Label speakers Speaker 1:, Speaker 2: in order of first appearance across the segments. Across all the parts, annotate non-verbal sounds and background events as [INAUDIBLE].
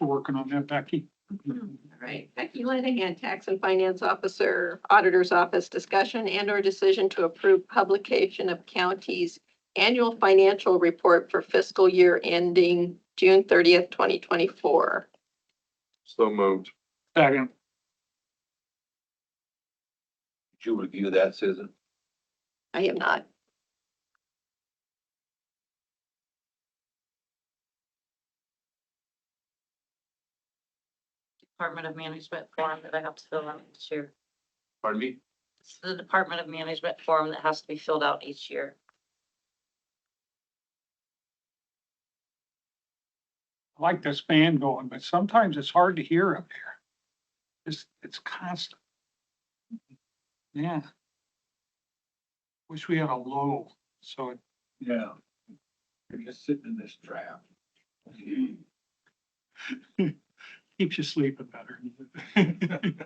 Speaker 1: We're working on that, Becky.
Speaker 2: All right, Becky Lanahan, Tax and Finance Officer, Auditor's Office, discussion and/or decision to approve publication of county's annual financial report for fiscal year ending June thirtieth, twenty twenty-four.
Speaker 3: So moved.
Speaker 1: Second,
Speaker 3: Did you review that, Susan?
Speaker 2: I am not.
Speaker 4: Department of Management form that I have to fill out each year.
Speaker 3: Pardon me?
Speaker 4: It's the Department of Management form that has to be filled out each year.
Speaker 1: I like this fan going, but sometimes it's hard to hear up there. It's, it's constant. Yeah. Wish we had a low, so it
Speaker 3: Yeah. You're just sitting in this trap.
Speaker 1: [LAUGHS] keeps you sleeping better. [LAUGHS]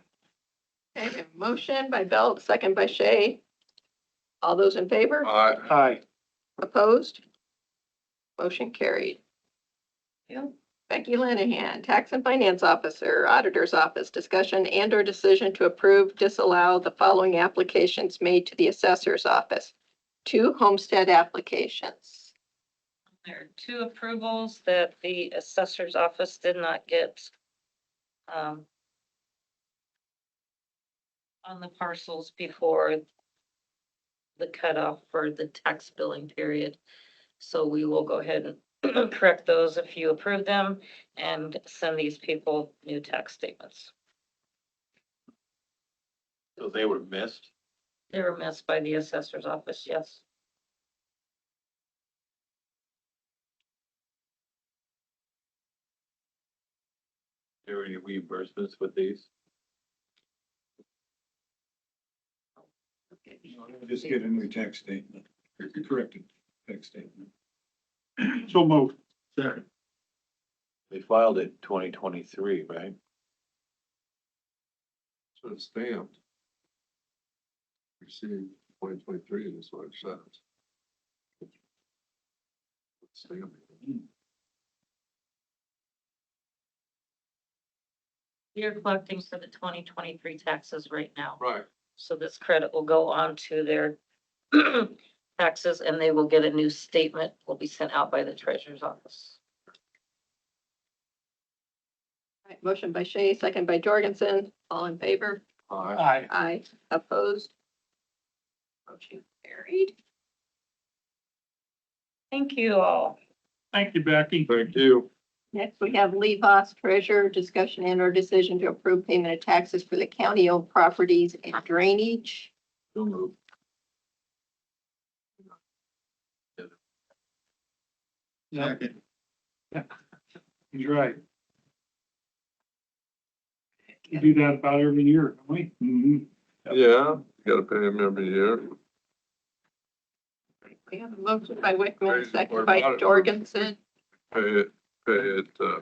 Speaker 2: Okay, we have a motion by Belt, second by Shay. All those in favor?
Speaker 3: Aye.
Speaker 1: Hi.
Speaker 2: Opposed? Motion carried. Yep. Becky Lanahan, Tax and Finance Officer, Auditor's Office, discussion and/or decision to approve, disallow the following applications made to the Assessor's Office. Two homestead applications.
Speaker 4: There are two approvals that the assessor's office did not get. um, On the parcels before the cutoff for the tax billing period. So we will go ahead and [CLEARS THROAT] correct those if you approve them and send these people new tax statements.
Speaker 3: So they were missed?
Speaker 4: They were missed by the assessor's office, yes.
Speaker 3: There were any reimbursements with these?
Speaker 5: Just get a new tax statement, corrected tax statement.
Speaker 1: So moved.
Speaker 3: Sure. They filed it twenty twenty-three, right? So it's stamped. Received twenty twenty-three is what it says. Stamped.
Speaker 4: We are collecting for the twenty twenty-three taxes right now.
Speaker 3: Right.
Speaker 4: So this credit will go on to their [CLEARS THROAT] taxes and they will get a new statement, will be sent out by the treasurer's office.
Speaker 2: All right, Motion by Shay, second by Jorgensen. All in favor?
Speaker 3: Aye.
Speaker 1: Aye.
Speaker 2: Aye. Opposed? Motion carried.
Speaker 4: Thank you all.
Speaker 1: Thank you, Becky.
Speaker 3: Thank you.
Speaker 2: Next, we have Lee Voss, Treasurer, discussion and/or decision to approve payment of taxes for the county-owned properties and drainage.
Speaker 3: So moved.
Speaker 1: Second. Yeah, [LAUGHS] he's right. We do that about every year, don't we? Mm-hmm.
Speaker 6: Yeah, gotta pay him every year.
Speaker 2: We have a motion by Wickman,
Speaker 6: Crazy
Speaker 2: second
Speaker 6: part
Speaker 2: by
Speaker 6: about it.
Speaker 2: Jorgensen.
Speaker 6: Pay it, pay it, uh,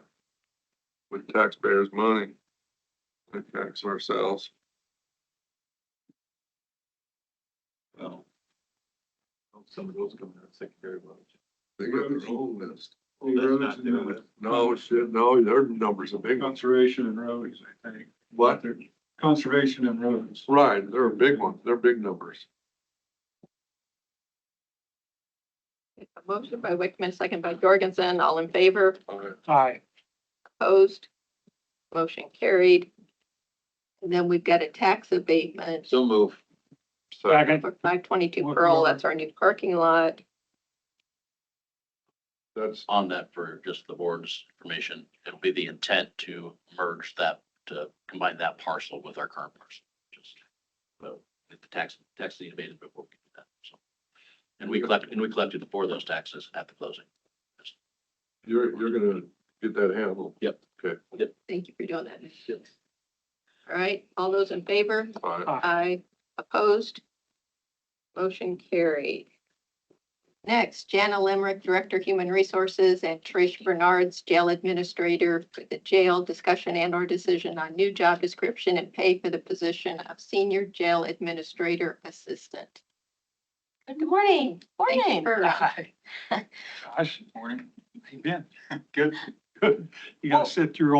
Speaker 6: with taxpayers' money. We tax ourselves.
Speaker 3: Well. Some of those come out of secondary budget.
Speaker 6: They got their own list.
Speaker 3: Well, that's not doing it.
Speaker 6: No, shit, no, their numbers are big. ones.
Speaker 5: Conservation and roads, I think.
Speaker 6: What?
Speaker 5: Conservation and roads.
Speaker 6: Right, they're big ones. They're big numbers.
Speaker 2: A motion by Wickman, second by Jorgensen. All in favor?
Speaker 6: Aye.
Speaker 1: Aye.
Speaker 2: Opposed? Motion carried. And then we've got a tax abatement
Speaker 3: So move.
Speaker 1: Second.
Speaker 2: for five twenty-two Pearl. That's our new parking lot.
Speaker 6: That's,
Speaker 7: on that for just the board's information, it'll be the intent to merge that, to combine that parcel with our current parcel. Just, so, if the tax, tax is abated before we do that, so. And we collect, and we collected for those taxes at the closing.
Speaker 6: you're, you're gonna get that handled.
Speaker 7: Yep.
Speaker 6: Okay.
Speaker 2: Thank you for doing that. All right, all those in favor?
Speaker 6: Aye.
Speaker 2: Aye. Opposed? Motion carried. Next, Jana Limerick, Director, Human Resources, and Trish Bernards, Jail Administrator for the jail, discussion and/or decision on new job description and pay for the position of Senior Jail Administrator Assistant.
Speaker 4: Good morning.
Speaker 2: Thank you for-
Speaker 1: Aye. Gosh, morning. How [LAUGHS] you been? Good, good. You gotta sit through all